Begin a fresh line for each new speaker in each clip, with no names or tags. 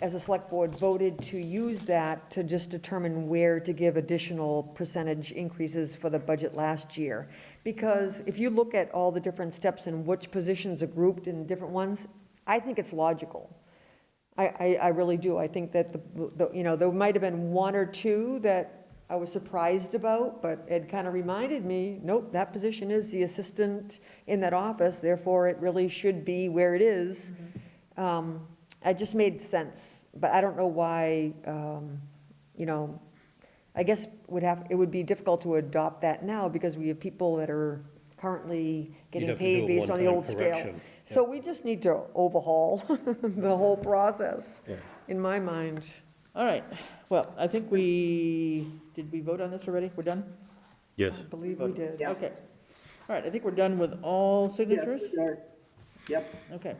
as a select board, voted to use that to just determine where to give additional percentage increases for the budget last year. Because if you look at all the different steps and which positions are grouped in different ones, I think it's logical. I, I, I really do. I think that, the, the- you know, there might have been one or two that I was surprised about, but it kind of reminded me, nope, that position is the assistant in that office, therefore it really should be where it is. Um, It just made sense, but I don't know why, um, you know, I guess would have, it would be difficult to adopt that now because we have people that are currently getting
have to do
paid
a
based on the
one-time
old scale.
correction.
So we just need to overhaul the whole process,
Yeah.
in my mind.
All right, well, I think we, did we vote on this already? We're done?
I
Yes.
believe we did.
Okay. All right, I think we're done with all signatures?
Yes, we are. Yep,
Okay.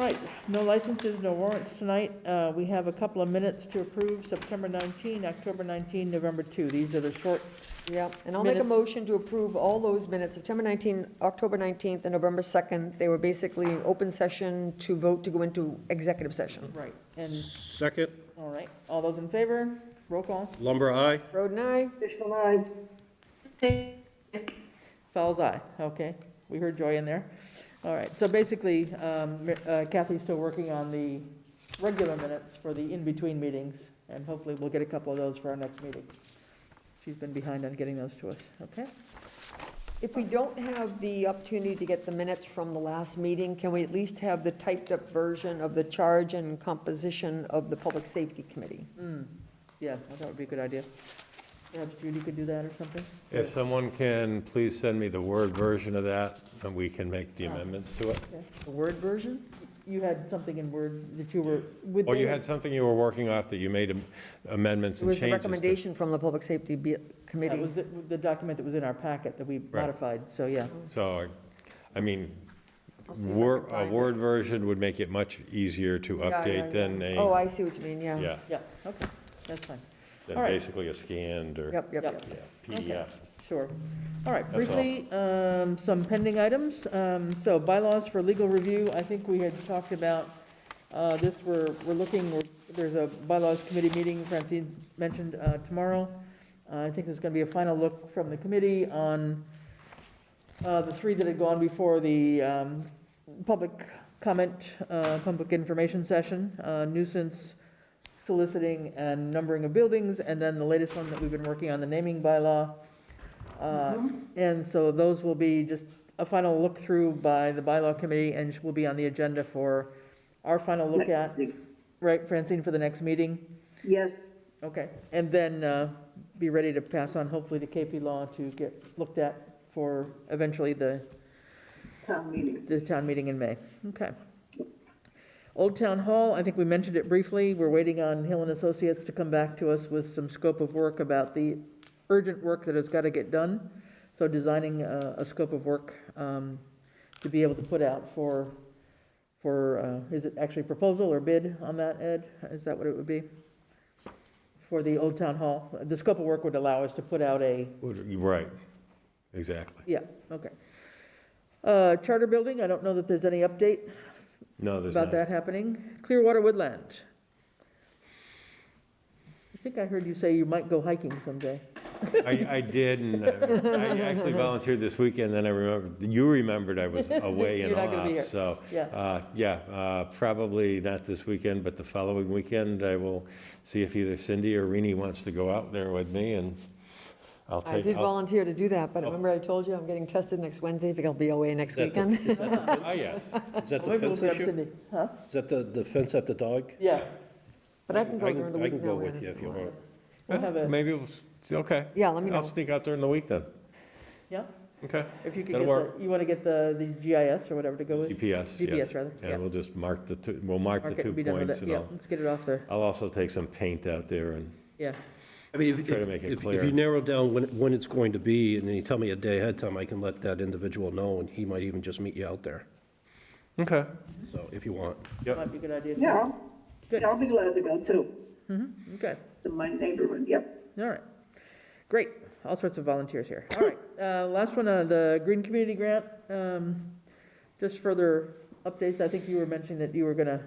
All right, no licenses, no warrants tonight. Uh, We have a couple of minutes to approve, September 19, October 19, November 2. These are the short,
Yeah, and I'll make a
Minutes.
motion to approve all those minutes, September 19, October 19th, and November 2nd. They were basically open session to vote to go into executive session.
right, and,
Second,
all right, all those in favor? Roll call,
lumber aye.
Roden, aye?
official nine,
Fowles eye, okay? We heard Joy in there. All right, so basically, um, Mi- uh, Kathy's still working on the regular minutes for the in-between meetings, and hopefully we'll get a couple of those for our next meeting. She's been behind on getting those to us, okay?
If we don't have the opportunity to get the minutes from the last meeting, can we at least have the typed-up version of the charge and composition of the Public Safety Committee?
Mm, yeah, I thought it would be a good idea. Perhaps Judy could do that or something?
If someone can, please send me the Word version of that, and we can make the amendments to it.
The Word version?
You had something in Word that you were, with.
Or Oh, you had something you were working off that you made am- amendments
It
and
was the
changes to.
recommendation from the Public Safety Be-
That
Committee.
was the, the document that was in our packet that we modified, so yeah.
So, I- I mean,
I'll see if I can
Word, a
find it.
Word version would make it much easier to
Yeah, yeah,
update than
yeah. Oh,
a,
I see what you mean, yeah.
yeah,
Yeah, okay, that's fine,
than
all right.
basically a scanned or
Yep, yep,
Yep.
yep.
yeah, PDF.
sure. All right,
That's all.
briefly, um, some pending items. Um, So bylaws for legal review, I think we had talked about uh, this, we're, we're looking, we're- there's a bylaws committee meeting Francine mentioned uh, tomorrow. Uh, I think there's going to be a final look from the committee on uh, the three that had gone before the um, public comment, uh, public information session, uh, nuisance soliciting and numbering of buildings, and then the latest one that we've been working on, the naming bylaw. Uh, And so those will be just a final look-through by the bylaw committee and will be on the agenda for our final look at, right, Francine, for the next meeting?
yes,
Okay, and then uh, be ready to pass on hopefully to KP Law to get looked at for eventually the,
town meeting.
the town meeting in May. Okay. Old Town Hall, I think we mentioned it briefly. We're waiting on Hill and Associates to come back to us with some scope of work about the urgent work that has got to get done. So designing uh, a, a scope of work um, to be able to put out for, for, uh, is it actually proposal or bid on that, Ed? Is that what it would be? For the Old Town Hall? The scope of work would allow us to put out a,
Would- Right, exactly.
yeah, okay. Uh, Charter Building, I don't know that there's any update
No, there's
about
not.
that happening. Clearwater Woodland. I think I heard you say you might go hiking someday.
I, I did, and uh, I actually volunteered this weekend, then I remembered, you remembered I was away and
You're not gonna be here.
off, so.
Yeah.
uh, Yeah, uh, probably not this weekend, but the following weekend, I will see if either Cindy or Rini wants to go out there with me, and I'll
I
take,
did
I'll-
volunteer to do that, but
Oh.
remember I told you I'm getting tested next Wednesday, if I'll be away next
That-
weekend.
Is that the
oh, yes.
fence- is that the
Maybe we'll
fence
grab
issue?
Cindy. Huh?
Is that the, the fence at the dog?
Yeah,
But I can go during the
I
week
can
now,
go with
Anna.
you if you want.
we'll have a,
Maybe, we'll s- okay.
Yeah, let me
I'll
know.
sneak out during the week then,
yeah,
okay?
if you could get
That'll
the, you want to get the, the GIS or whatever to go with?
GPS, yes.
GPS, rather, yeah.
And we'll just mark the, two. we'll mark
Mark
the
it
two
and be done with
points,
it,
and
yeah,
I'll,
let's get it off there,
I'll also take some paint out there and
yeah.
I mean, if,
Try to make
if,
it
if
clear.
you narrow down when, when it's going to be, and then you tell me a day ahead of time, I can let that individual know, and he might even just meet you out there,
Okay.
so, if you want.
Yep.
Might be a good idea.
Yeah, I'll-
Good.
yeah, I'll be glad to go too,
Okay,
to my neighborhood, yep.
all right, great, all sorts of volunteers here, all right. Uh, last one, uh, the Green Community Grant, um, just further updates, I think you were mentioning that you were gonna